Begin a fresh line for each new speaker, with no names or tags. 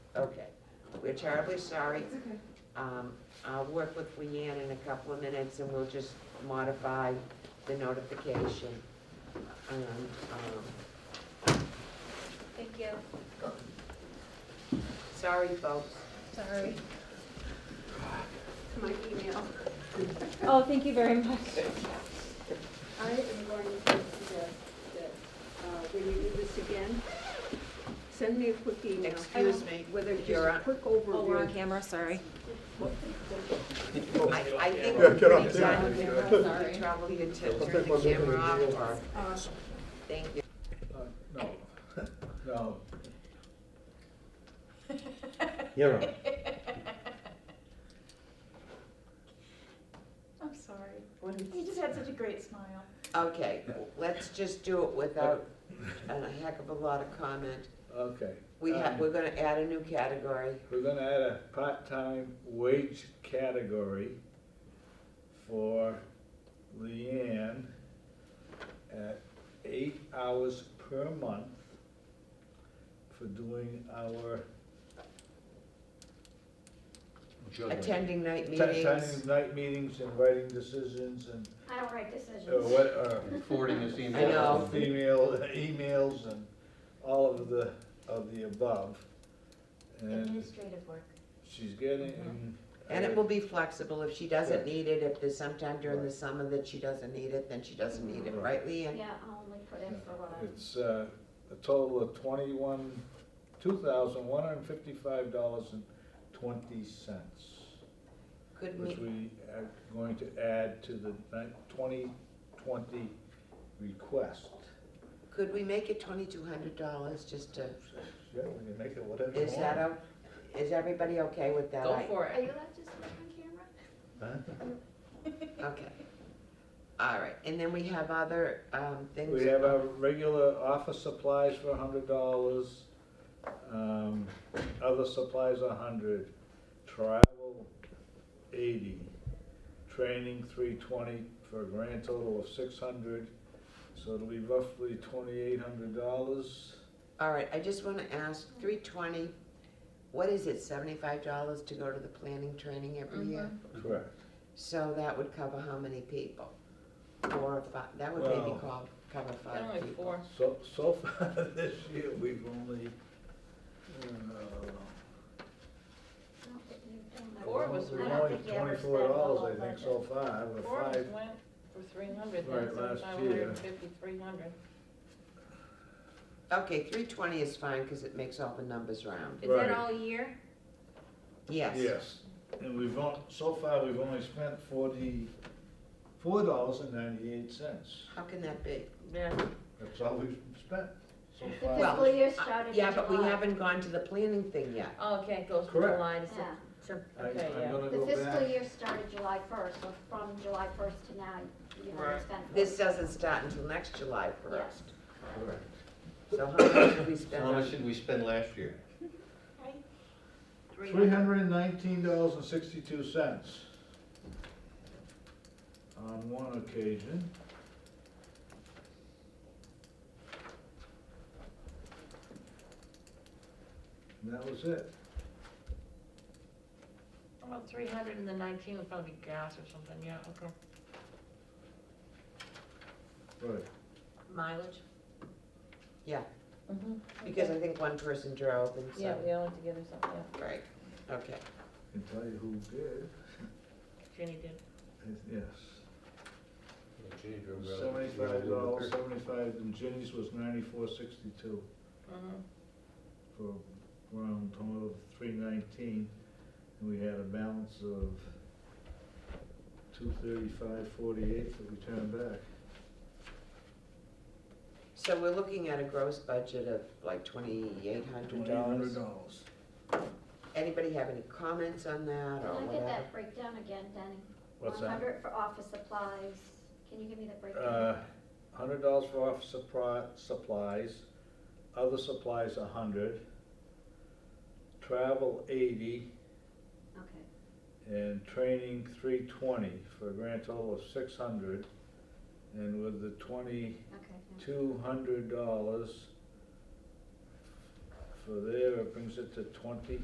We're terribly sorry.
It's okay.
Um, I'll work with Leanne in a couple of minutes and we'll just modify the notification. And, um,
Thank you.
sorry, folks.
Sorry.
My email.
Oh, thank you very much.
I am going to suggest that uh, when you do this again, send me a quick email.
Excuse me,
Whether
you're
just a
on-
quick
Oh, we're on
overview.
camera, sorry.
I, I think
Yeah,
we're
get off
pretty
there.
done.
Sorry.
The trouble you to turn the camera off or,
Uh,
thank you.
Uh, No, no.
You're on.
I'm sorry. You just had such a great smile.
Okay, let's just do it without a heck of a lot of comment.
Okay.
We have,
Um,
we're gonna add a new category.
We're gonna add a part-time wage category for Leanne at eight hours per month for doing our
Attending night
ti- time,
meetings.
night meetings and writing decisions and,
I don't write
or
decisions.
what, uh, or
Forwarding this email.
I know.
email, emails and all of the, of the above. And
Administrative work. Mm-hmm.
she's getting.
And it will be flexible. If she doesn't
Yeah.
need it, if there's sometime during the
Right.
summer that she doesn't need it, then she doesn't need it, right,
Right.
Leanne?
Yeah, I'll only put in for what I,
It's uh, a total of twenty-one, two thousand, one hundred and fifty-five dollars and twenty cents,
Could
which
we,
we are going to add to the twenty twenty request.
could we make it twenty-two hundred dollars just to,
Yeah, we can make it whatever you
is that,
want.
o- is everybody okay with that? I-
are you allowed to speak on camera?
Huh?
Okay. All right, and then we have other, um, things.
We have our regular office supplies for a hundred dollars, um, other supplies a hundred, travel eighty, training three twenty for a grand total of six hundred, so it'll be roughly twenty-eight hundred dollars.
All right, I just wanna ask, three twenty, what is it, seventy-five dollars to go to the planning training every year?
Correct.
So that would cover how many people? Four or five, that would maybe
Well-
call, cover five people.
So, so far this year, we've only, uh,
I don't think you've done that.
Four was
I
we've
don't
only
think you ever spent
twenty-four
all
dollars,
of
I think,
budget.
so far, we're
Forbes
five,
went for three hundred,
Right,
that's
last
five
year.
hundred and fifty, three hundred.
Okay, three twenty is fine, cause it makes all the numbers round.
Is that
Right.
all Oh, year?
Yes.
Yes, and we've, on- so far, we've only spent forty-four dollars and ninety-eight cents.
How can that be?
Yeah.
That's all we've spent so
The
far.
Well,
fiscal year
uh,
started in July.
Uh, Yeah, but we haven't gone to the planning thing yet.
Oh, okay, it goes from
Correct.
July to
Yeah.
September.
I-
Okay,
I'm
yeah.
gonna
The
go
fiscal
back.
year started July first, so from July first to now, you haven't
Right.
spent.
This doesn't start until next July first.
Correct.
So how much did we spend
How much
on?
did we spend last year?
Three hundred and nineteen dollars and sixty-two cents on one occasion. And that was it.
About three hundred and the nineteen would probably be gas or something, yeah, okay.
Right.
Mileage?
Yeah,
Mm-hmm.
because I think one person drove and
Yeah, we
so,
all went together, so, yeah.
right, okay.
Can tell you who did,
Jenny did.
yes.
Jenny drove around.
Seventy-five dollars, seventy-five, and Jenny's was ninety-four sixty-two
Mhm.
for a round total of three nineteen. And we had a balance of two thirty-five forty-eight that we turned back.
So we're looking at a gross budget of like twenty-eight hundred dollars.
dollars.
Anybody have any comments on that
Can
or
I get
whatever?
that breakdown again, Danny?
What's
One
that?
hundred for office supplies. Can you give me the
Uh,
breakdown?
hundred dollars for office supply, supplies, other supplies a hundred, travel eighty,
Okay.
and training three twenty for a grand total of six hundred. And with the twenty-two
Okay, yeah.
hundred dollars for there, it brings it to twenty